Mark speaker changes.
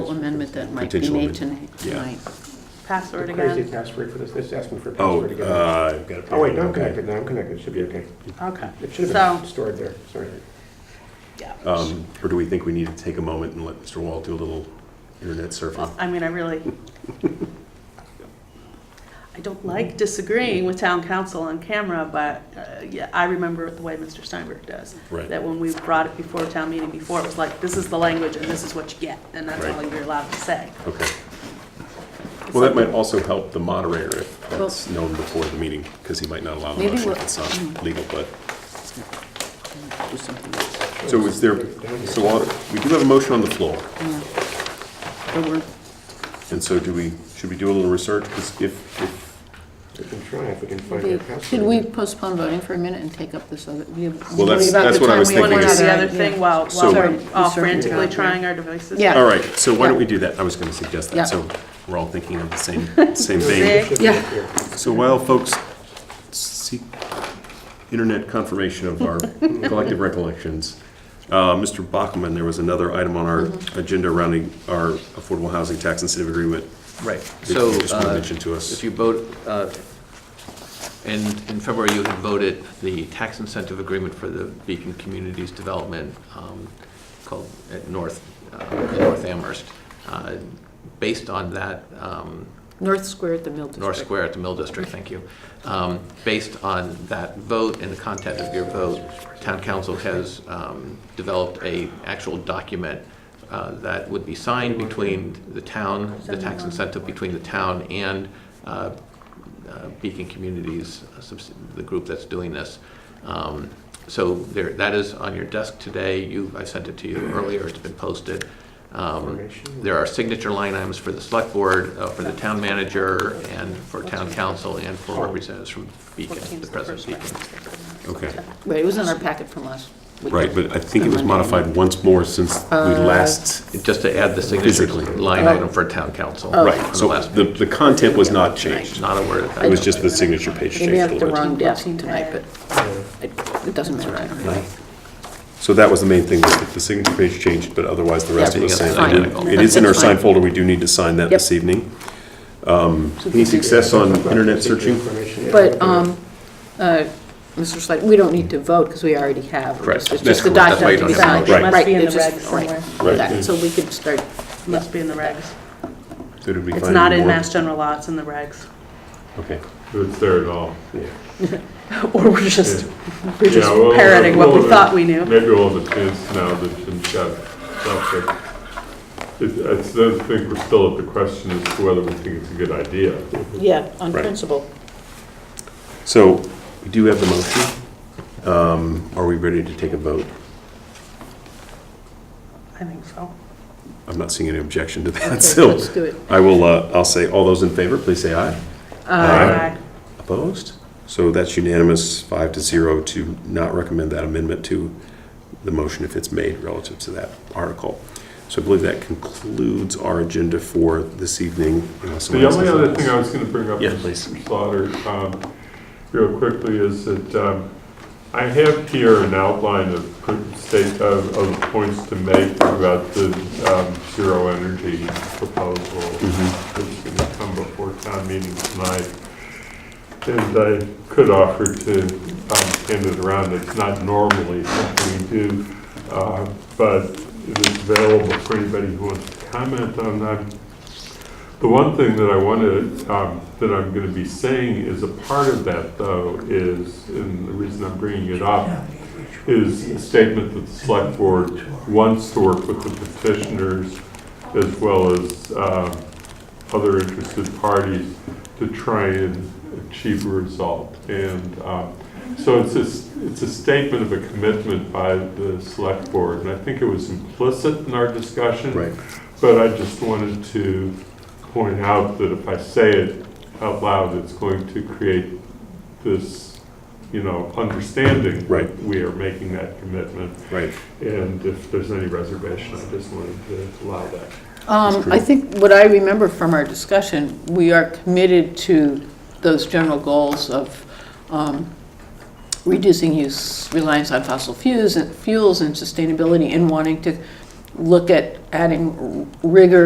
Speaker 1: password that might be
Speaker 2: Potential
Speaker 1: made
Speaker 2: amendment.
Speaker 1: tonight.
Speaker 2: Yeah.
Speaker 1: tonight.
Speaker 3: Password
Speaker 4: The crazy
Speaker 3: again.
Speaker 4: password for this, this asked me for a
Speaker 2: Oh,
Speaker 4: password again.
Speaker 2: uh, I've got it.
Speaker 4: Oh, wait, no, I'm
Speaker 2: okay.
Speaker 4: connected, no, I'm connected, should be okay.
Speaker 3: Okay.
Speaker 4: It should have
Speaker 3: So-
Speaker 4: been stored there, sorry.
Speaker 3: Yeah.
Speaker 2: Um, Or do we think we need to take a moment and let Mr. Wall do a little internet surfing?
Speaker 1: Uh,
Speaker 3: Well, I mean, I really, I don't like disagreeing with town council on camera, but uh, yeah, I remember it the way Mr. Steinberg does.
Speaker 2: Right.
Speaker 3: That when we brought it before town meeting before, it was like, this is the language and this is what you get, and that's all
Speaker 2: Right.
Speaker 3: you're allowed to say.
Speaker 2: Okay. Well, that might also help the moderator if that's known before the meeting, because he might not allow the
Speaker 1: Maybe
Speaker 2: motion if
Speaker 1: we'll- Mm-hmm.
Speaker 2: it's not legal, but,
Speaker 1: Do something else.
Speaker 2: so is there, so all- we do have a motion on the floor.
Speaker 1: Yeah. But we're-
Speaker 2: And so do we, should we do a little research? Because if, if,
Speaker 4: We can try if we can find
Speaker 1: we-
Speaker 4: the password.
Speaker 1: Should we postpostpone voting for a minute and take up this other? Well,
Speaker 2: Well, that's- that's what I was
Speaker 3: One
Speaker 2: thinking
Speaker 3: or
Speaker 2: is-
Speaker 3: the other thing, while, while
Speaker 2: So-
Speaker 3: we're all
Speaker 1: Sorry.
Speaker 3: frantically
Speaker 1: Yeah.
Speaker 3: trying our devices.
Speaker 1: Yeah.
Speaker 2: all right, so why don't we
Speaker 1: Yeah.
Speaker 2: do that? I was going to suggest
Speaker 1: Yeah.
Speaker 2: that, so we're all thinking of the same, same
Speaker 3: Zig.
Speaker 2: thing.
Speaker 4: Should be
Speaker 1: Yeah.
Speaker 4: up here.
Speaker 2: So while folks seek internet confirmation of our collective recollections, uh, Mr. Bachman, there was another item on our agenda around our affordable housing tax incentive agreement.
Speaker 5: Right,
Speaker 2: you
Speaker 5: so.
Speaker 2: just wanna
Speaker 5: uh,
Speaker 2: mention to us.
Speaker 5: If you vote, uh, in, in February, you had voted the tax incentive agreement for the Beacon Communities Development um, called at North, uh, North Amherst. Uh, Based on that, um,
Speaker 1: North Square at the Mill District.
Speaker 5: North Square at the Mill District, thank you. Um, Based on that vote and the content of your vote, town council has um, developed a actual document uh, that would be signed between the town, the tax incentive between the town and uh, uh, Beacon Communities, uh, subs- the group that's doing this. Um, So there, that is on your desk today. You, I sent it to you earlier, it's been posted. Um, There are signature line items for the select board, uh, for the town manager, and for town council, and for representatives from Beacon, the president of Beacon.
Speaker 2: Okay,
Speaker 1: Right, it was in our packet from last week.
Speaker 2: right, but I think it was modified once more since we last,
Speaker 5: Just to add the signature
Speaker 2: Physically.
Speaker 5: line item for town council.
Speaker 2: right,
Speaker 5: from
Speaker 2: so
Speaker 5: oh. last
Speaker 2: the, the content was not changed.
Speaker 5: Not a word.
Speaker 2: It was just the signature page changed
Speaker 1: Maybe
Speaker 2: a
Speaker 1: at the
Speaker 2: little bit.
Speaker 1: wrong desk tonight, but it- it doesn't matter. anyway.
Speaker 2: So that was the main thing, was that the signature page changed, but otherwise the rest of the
Speaker 5: Everything
Speaker 2: same.
Speaker 5: else
Speaker 2: I
Speaker 5: is
Speaker 2: did-
Speaker 5: identical.
Speaker 2: It is in our
Speaker 1: That's fine.
Speaker 2: sign folder, we do need to sign that
Speaker 1: Yep.
Speaker 2: this evening. Um, Any success on internet searching?
Speaker 4: Information, yeah.
Speaker 1: But, um, uh, Mr. Slade, we don't need to vote because we already have. It's-
Speaker 2: Correct.
Speaker 1: It's
Speaker 2: That's
Speaker 1: just the
Speaker 2: correct. That's
Speaker 5: why you
Speaker 1: document
Speaker 5: don't
Speaker 1: to be
Speaker 5: have
Speaker 1: signed.
Speaker 5: a
Speaker 2: motion. Right.
Speaker 3: Must be in
Speaker 1: it's
Speaker 3: the
Speaker 1: just-
Speaker 3: regs
Speaker 1: right,
Speaker 3: somewhere.
Speaker 1: that, So we could start,
Speaker 3: Must be in the regs.
Speaker 2: So did we
Speaker 3: It's
Speaker 2: find
Speaker 3: not in
Speaker 2: more?
Speaker 3: Mass General Law, it's in the regs.
Speaker 2: Okay.
Speaker 6: It's there at all.
Speaker 3: Or we're just, we're just
Speaker 6: Yeah, well,
Speaker 3: parroting what we
Speaker 6: well,
Speaker 3: thought we knew.
Speaker 6: Maybe all the kids now that shouldn't have stuff, but it- I still think we're still at the question as to whether we think it's a good idea.
Speaker 1: yeah, on
Speaker 2: Right.
Speaker 1: principle.
Speaker 2: So we do have the motion. Um, Are we ready to take a vote?
Speaker 3: I think so.
Speaker 2: I'm not seeing any objection to that,
Speaker 1: Okay,
Speaker 2: so
Speaker 1: let's do it.
Speaker 2: I will, uh, I'll say, all those in favor, please say aye. Aye. Opposed? So that's unanimous, five to zero, to not recommend that amendment to the motion if it's made relative to that article. So I believe that concludes our agenda for this evening. unless
Speaker 6: The
Speaker 2: someone
Speaker 6: only
Speaker 2: else has
Speaker 6: other
Speaker 2: anything
Speaker 6: thing I
Speaker 2: else.
Speaker 6: was going to bring up,
Speaker 2: Yeah,
Speaker 6: Mr.
Speaker 2: please.
Speaker 6: Slaughter, um, real quickly, is that um, I have here an outline of pr- state, of of points to make about the um, zero energy proposal
Speaker 2: Mm-hmm.
Speaker 6: that's going to come before town meeting tonight. And I could offer to um, hand it around, it's not normally something we do, uh, but it is available for anybody who wants to comment on that. The one thing that I want to, um, that I'm going to be saying is a part of that, though, is, and the reason I'm bringing it up, is the statement that the select board wants to work with the petitioners as well as um, other interested parties to try and achieve a result. And um, so it's a, s- it's a statement of a commitment by the select board, and I think it was implicit in our discussion.
Speaker 2: Right.
Speaker 6: But I just wanted to point out that if I say it out loud, it's going to create this, you know, understanding.
Speaker 2: Right.
Speaker 6: that We are making that commitment,
Speaker 2: Right.
Speaker 6: and if there's any reservation, I just wanted to allow that.
Speaker 1: Um, I think what I remember from our discussion, we are committed to those general goals of um, reducing use, reliance on fossil fuels and fuels and sustainability and wanting to look at adding rigor